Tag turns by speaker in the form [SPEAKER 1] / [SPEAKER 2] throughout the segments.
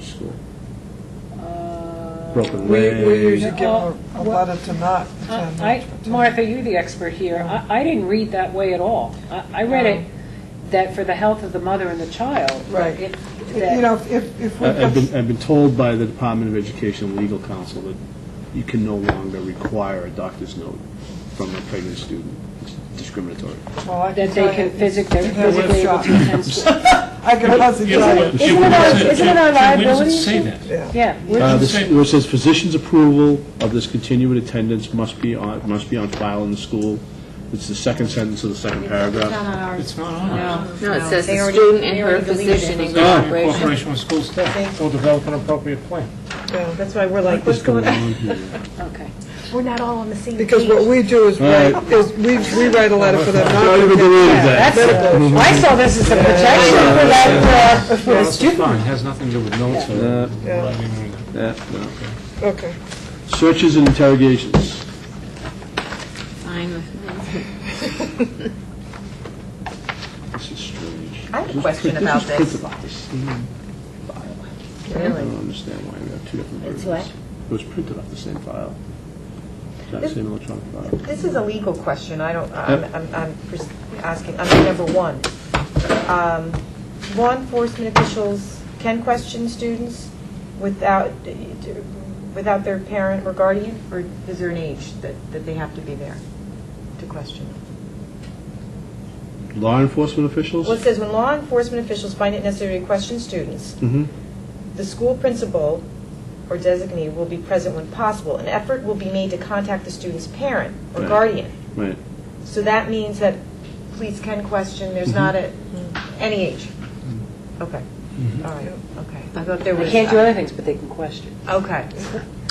[SPEAKER 1] school?
[SPEAKER 2] Uh,
[SPEAKER 1] Broken
[SPEAKER 3] We, we
[SPEAKER 1] leg.
[SPEAKER 3] usually give a uh, a letter to uh, not attend.
[SPEAKER 2] I, I- Martha, you're the expert here. I, I didn't read that way at all. I, I read it that for the health of the mother and the child.
[SPEAKER 3] Um, Right.
[SPEAKER 2] it-
[SPEAKER 3] If-
[SPEAKER 2] that-
[SPEAKER 3] You know, if, if we
[SPEAKER 1] I- I've been,
[SPEAKER 3] put,
[SPEAKER 1] I've been told by the Department of Education legal counsel that you can no longer require a doctor's note from a pregnant student. It's discriminatory.
[SPEAKER 3] well, I
[SPEAKER 2] That
[SPEAKER 3] can
[SPEAKER 2] they
[SPEAKER 3] tell you.
[SPEAKER 2] can physic, they're
[SPEAKER 3] it has a
[SPEAKER 2] physically able
[SPEAKER 3] shot.
[SPEAKER 2] to attend school.
[SPEAKER 3] I can hardly tell you.
[SPEAKER 4] Isn't
[SPEAKER 2] it our- isn't it our
[SPEAKER 4] Where
[SPEAKER 2] liability?
[SPEAKER 4] does it say that?
[SPEAKER 2] Yeah. we're-
[SPEAKER 1] Uh, this-
[SPEAKER 4] say-
[SPEAKER 1] Where it says physician's approval of this continued attendance must be on, must be on file in the school. It's the second sentence of the second paragraph.
[SPEAKER 4] It's not on there.
[SPEAKER 5] No, it says
[SPEAKER 6] They
[SPEAKER 5] the
[SPEAKER 6] already-
[SPEAKER 5] student
[SPEAKER 6] they
[SPEAKER 5] and her
[SPEAKER 6] already deleted
[SPEAKER 5] physician
[SPEAKER 6] it.
[SPEAKER 5] in
[SPEAKER 4] Oh, in
[SPEAKER 5] cooperation.
[SPEAKER 4] Cooperation with school staff, will develop an appropriate plan.
[SPEAKER 3] Yeah.
[SPEAKER 6] That's why we're like, what's
[SPEAKER 1] What's
[SPEAKER 6] going on?
[SPEAKER 1] on here?
[SPEAKER 2] Okay.
[SPEAKER 7] We're not all on the same page.
[SPEAKER 3] Because what we do is
[SPEAKER 1] All
[SPEAKER 3] write,
[SPEAKER 1] right.
[SPEAKER 3] is we, we write a letter for them
[SPEAKER 1] Don't even
[SPEAKER 3] not to
[SPEAKER 1] believe that.
[SPEAKER 2] That's, I saw this as a protection for that, uh, for the
[SPEAKER 4] It's
[SPEAKER 2] student.
[SPEAKER 4] fine, it has nothing to do with notes or
[SPEAKER 3] Yeah.
[SPEAKER 4] writing. or-
[SPEAKER 1] Yeah, no.
[SPEAKER 3] Okay.
[SPEAKER 1] Searches and interrogations.
[SPEAKER 5] Fine with me.
[SPEAKER 1] This is strange.
[SPEAKER 6] I have a question about
[SPEAKER 1] This is
[SPEAKER 6] this.
[SPEAKER 1] printed off the same file. I
[SPEAKER 6] Really?
[SPEAKER 1] don't understand why we have two different versions.
[SPEAKER 6] It's what?
[SPEAKER 1] It was printed off the same file. That same electronic file.
[SPEAKER 6] This is a legal question, I don't, I'm, I'm- I'm pers- asking, under number one. Um, Law enforcement officials can question students without, without their parent or guardian, or is there an age that, that they have to be there to question?
[SPEAKER 1] Law enforcement officials?
[SPEAKER 6] Well, it says, when law enforcement officials find it necessary to question students,
[SPEAKER 1] Mhm.
[SPEAKER 6] The school principal or designee will be present when possible. An effort will be made to contact the student's parent or
[SPEAKER 1] Right.
[SPEAKER 6] guardian.
[SPEAKER 1] Right.
[SPEAKER 6] So that means that police can question,
[SPEAKER 1] Mm-hmm.
[SPEAKER 6] there's not a, any age? Okay,
[SPEAKER 1] Mm-hmm.
[SPEAKER 6] all right, okay. I thought there
[SPEAKER 2] They
[SPEAKER 6] was.
[SPEAKER 2] can't do other things, but they can question.
[SPEAKER 6] Okay,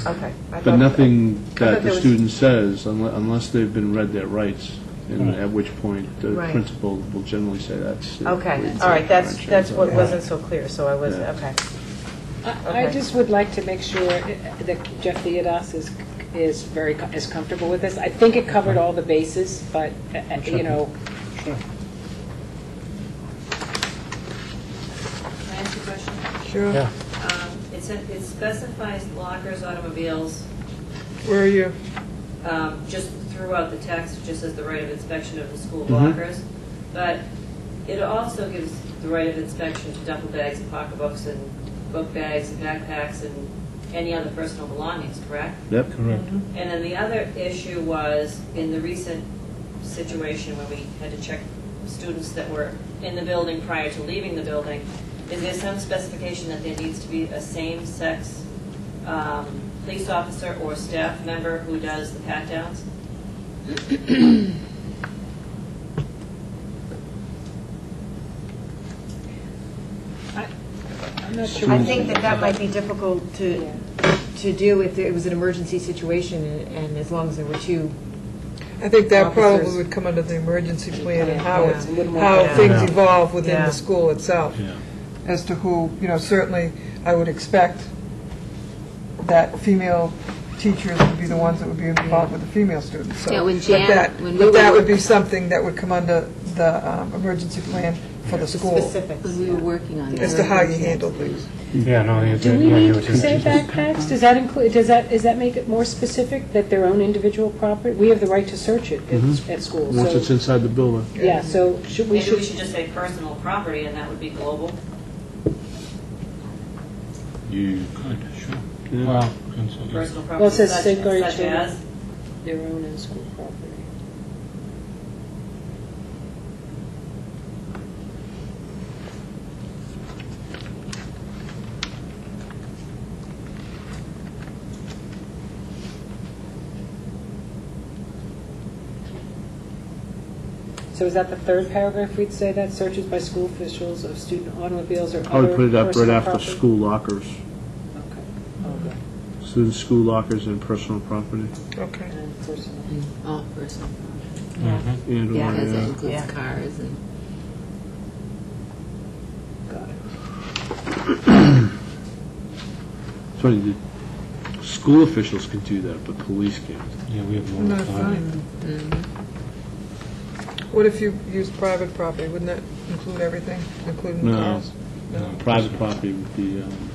[SPEAKER 6] okay. I
[SPEAKER 1] But
[SPEAKER 6] thought-
[SPEAKER 1] nothing
[SPEAKER 6] I
[SPEAKER 1] that
[SPEAKER 6] thought
[SPEAKER 1] the
[SPEAKER 6] there was-
[SPEAKER 1] student says, unle- unless they've been read their rights, and
[SPEAKER 4] Right.
[SPEAKER 1] at which point the
[SPEAKER 6] Right.
[SPEAKER 1] principal will generally say that's... uh, we-
[SPEAKER 6] Okay, all right, that's,
[SPEAKER 1] Right.
[SPEAKER 6] that's what
[SPEAKER 1] Yeah.
[SPEAKER 6] wasn't so clear, so I was,
[SPEAKER 1] Yeah.
[SPEAKER 6] okay.
[SPEAKER 2] I I
[SPEAKER 6] Okay.
[SPEAKER 2] just would like to make sure that Jeff Theodas is, is very, co- is comfortable with this. I think it covered all the bases, but, uh, uh, you know,
[SPEAKER 8] Can I ask you a question?
[SPEAKER 3] Sure.
[SPEAKER 4] Yeah.
[SPEAKER 8] Um, It said, it specifies lockers, automobiles,
[SPEAKER 3] Where are you?
[SPEAKER 8] um, just throughout the text, it just says the right of inspection of the school
[SPEAKER 1] Mhm.
[SPEAKER 8] lockers. But it also gives the right of inspection to duffel bags and pocketbooks and book bags and backpacks and any other personal belongings, correct?
[SPEAKER 1] Yep.
[SPEAKER 4] Correct.
[SPEAKER 8] And then the other issue was, in the recent situation when we had to check students that were in the building prior to leaving the building, is there some specification that there needs to be a same-sex um, police officer or staff member who does the pat-downs?
[SPEAKER 2] I'm not sure.
[SPEAKER 6] I think that that might be difficult to, to do if it was an emergency situation and as long as there were two.
[SPEAKER 3] I think that probably
[SPEAKER 6] Officers.
[SPEAKER 3] would come under the emergency plan and how
[SPEAKER 6] Yeah.
[SPEAKER 3] it's,
[SPEAKER 2] Yeah.
[SPEAKER 3] how
[SPEAKER 6] Yeah.
[SPEAKER 3] things evolve within
[SPEAKER 6] Yeah.
[SPEAKER 3] the school itself.
[SPEAKER 4] Yeah.
[SPEAKER 3] As to who, you know, certainly, I would expect that female teachers would be the ones that would be involved with the female students, so.
[SPEAKER 5] Yeah, when
[SPEAKER 3] but
[SPEAKER 5] Jan-
[SPEAKER 3] that-
[SPEAKER 5] when we
[SPEAKER 3] But that
[SPEAKER 5] were-
[SPEAKER 3] would be something that would come under the um, emergency plan for the school,
[SPEAKER 6] Specifics.
[SPEAKER 5] When we were working on
[SPEAKER 3] as to
[SPEAKER 5] that.
[SPEAKER 3] how you handle things.
[SPEAKER 4] Yeah, no, I
[SPEAKER 2] Do we
[SPEAKER 4] I
[SPEAKER 2] need
[SPEAKER 4] hear what
[SPEAKER 2] to
[SPEAKER 4] you're
[SPEAKER 2] say
[SPEAKER 4] saying.
[SPEAKER 2] backpacks? Does that include, does that, does that make it more specific that their own individual property? We have the right to search it
[SPEAKER 4] Mm-hmm.
[SPEAKER 2] at- at school,
[SPEAKER 1] Once it's
[SPEAKER 2] so,
[SPEAKER 1] inside the building.
[SPEAKER 2] yeah, so should, we
[SPEAKER 8] Maybe we
[SPEAKER 2] should,
[SPEAKER 8] should just say personal property, and that would be global.
[SPEAKER 1] You...
[SPEAKER 4] Good, sure.
[SPEAKER 1] Yeah.
[SPEAKER 4] Well, consider-
[SPEAKER 8] Personal
[SPEAKER 2] Well,
[SPEAKER 8] property
[SPEAKER 2] it says
[SPEAKER 8] such
[SPEAKER 2] safeguard
[SPEAKER 8] such
[SPEAKER 2] children.
[SPEAKER 8] as,
[SPEAKER 2] their own in-school property. So is that the third paragraph we'd say that? Searches by school officials of student automobiles or other
[SPEAKER 1] I would put it up right
[SPEAKER 2] personal
[SPEAKER 1] after
[SPEAKER 2] property?
[SPEAKER 1] school lockers.
[SPEAKER 2] Okay. Oh, Okay.
[SPEAKER 1] Student school lockers and personal property.
[SPEAKER 3] Okay.
[SPEAKER 2] And personal.
[SPEAKER 5] All personal.
[SPEAKER 4] Mhm.
[SPEAKER 1] And
[SPEAKER 5] Yeah,
[SPEAKER 1] or, uh,
[SPEAKER 5] because that
[SPEAKER 1] yeah.
[SPEAKER 5] includes
[SPEAKER 6] Yeah.
[SPEAKER 5] cars and.
[SPEAKER 2] Got it.
[SPEAKER 1] It's funny, the school officials can do that, but police can't.
[SPEAKER 4] Yeah, we have more.
[SPEAKER 3] No,
[SPEAKER 4] time.
[SPEAKER 3] fine. What if you use private property? Wouldn't that include everything, including
[SPEAKER 1] No.
[SPEAKER 3] cars?
[SPEAKER 4] No.
[SPEAKER 1] Private property would be, um,